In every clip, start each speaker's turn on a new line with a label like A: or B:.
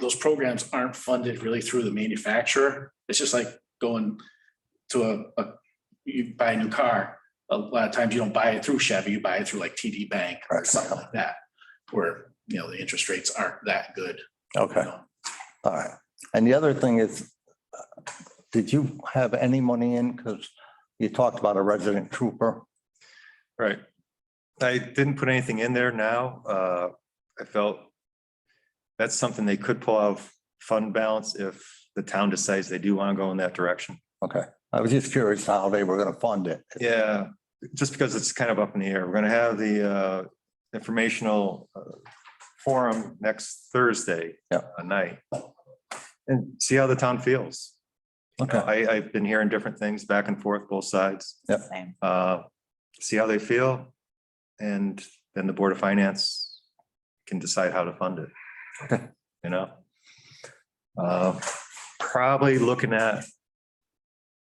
A: those programs aren't funded really through the manufacturer. It's just like going to a, a, you buy a new car. A lot of times you don't buy it through Chevy, you buy it through like TD Bank or
B: Right.
A: something like that, where, you know, the interest rates aren't that good. you
B: Okay,
A: know.
B: all right. And the other thing is, uh, did you have any money in? Because you talked about a resident trooper.
C: Right. I didn't put anything in there now. Uh, I felt that's something they could pull out of fund balance if the town decides they do want to go in that direction.
B: Okay, I was just curious how they were going to fund it.
C: Yeah, just because it's kind of up in the air. We're going to have the uh, informational uh, forum next Thursday
B: Yeah.
C: uh, night. And see how the town feels. You know,
B: Okay,
C: Uh, I, I've been hearing different things back and forth, both sides.
B: Yep.
D: Same.
C: Uh, See how they feel. And then the Board of Finance can decide how to fund it.
B: Okay.
C: You know? Uh, Probably looking at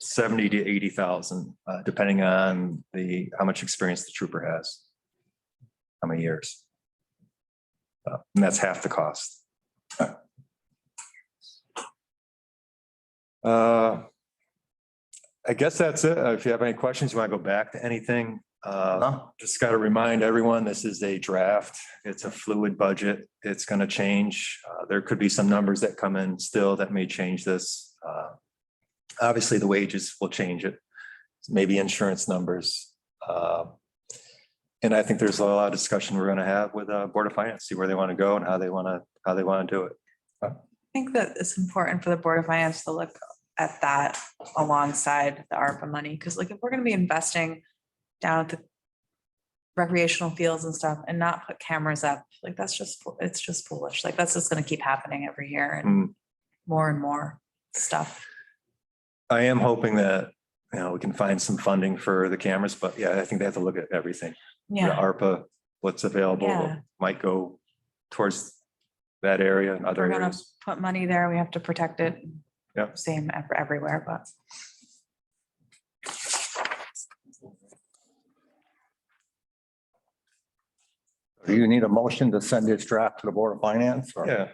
C: seventy to eighty thousand, uh, depending on the, how much experience the trooper has. How many years? Uh, And that's half the cost. Uh, I guess that's it. Uh, If you have any questions, you want to go back to anything? uh,
B: Huh?
C: Just got to remind everyone, this is a draft. It's a fluid budget. It's going to change. Uh, There could be some numbers that come in still that may change this. Uh, Obviously, the wages will change it, maybe insurance numbers. Uh, And I think there's a lot of discussion we're going to have with uh, Board of Finance, see where they want to go and how they want to, how they want to do it.
D: I think that it's important for the Board of Finance to look at that alongside the ARPA money, because like if we're gonna be investing down at the recreational fields and stuff and not put cameras up, like that's just, fo- it's just foolish. Like that's just gonna keep happening every year
C: Hmm.
D: and more and more stuff.
C: I am hoping that, you know, we can find some funding for the cameras, but yeah, I think they have to look at everything. The
D: Yeah,
C: ARPA, what's available,
D: Yeah.
C: what might go towards that area and other
D: We're gonna-
C: areas.
D: put money there, we have to protect it.
C: Yep.
D: Same ev- everywhere, but.
B: Do you need a motion to send this draft to the Board of Finance? or-
C: Yeah,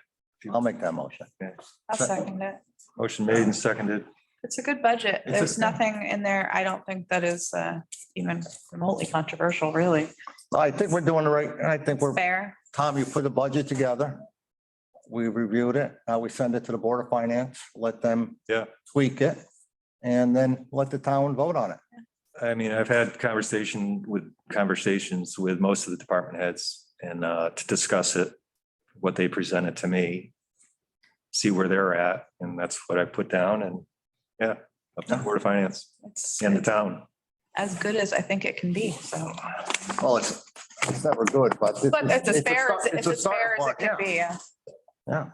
B: I'll make that motion.
D: I'll
B: Sure.
D: second it.
C: motion made and seconded.
D: It's a good budget.
C: It's a-
D: There's nothing in there. I don't think that is uh, even remotely controversial, really.
B: I think we're doing the right, I think we're,
D: Fair.
B: Tom, you put the budget together. We reviewed it. Now we send it to the Board of Finance, let them
C: Yeah.
B: tweak it, and then let the town vote on it.
C: I mean, I've had conversation with, conversations with most of the department heads and uh, to discuss it, what they presented to me, see where they're at, and that's what I put down and, yeah, up to the Board of Finance
D: It's
C: and the town.
D: as good as I think it can be, so.
B: Well, it's, it's never good, but. this
D: But
B: is-
D: it's as fair,
B: start-
D: as- it's
B: a
D: as
B: start
D: fair as it
B: point,
D: can
B: yeah.
D: be. yeah.
B: Yeah,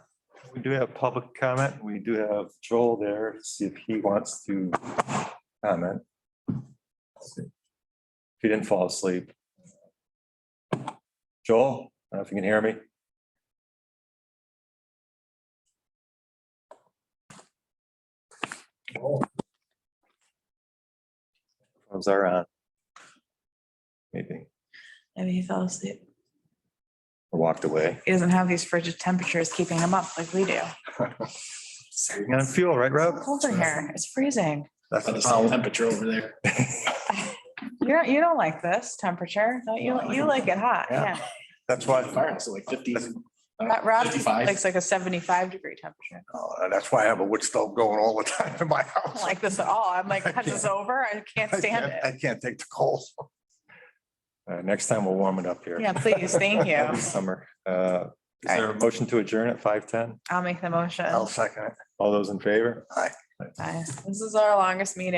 C: We do have public comment. We do have Joel there, see if he wants to comment. If he didn't fall asleep. Joel, I don't know if you can hear me. Phones are on. Maybe,
D: Maybe he fell asleep.
C: or walked away.
D: He doesn't have these frigid temperatures keeping him up like we do.
C: Saving on fuel, right, Rob?
D: It's Cold in here. It's freezing.
B: that's
A: But
B: the
A: it's the
B: problem.
A: temperature over there.
D: You're, you don't like this temperature, don't you? You like it hot,
B: Yeah.
D: yeah.
C: That's why.
A: The Firehouse is like fifty. uh,
D: But Rob
A: Fifty-five.
D: likes like a seventy-five degree temperature.
B: Uh, That's why I have a wood stove going all the time in my
D: I don't
B: house.
D: like this at all. I'm like, this is over. I can't
B: I
D: stand
B: can't-
D: it.
B: I can't take the cold.
C: All right, Uh, next time we'll warm it up here.
D: Yeah, please. Thank
C: Happy
D: you.
C: Summer. Uh, Is
D: All right.
C: there a motion to adjourn at five ten?
D: I'll make the motion.
B: I'll second it.
C: All those in favor?
D: Aye. This is our longest meeting.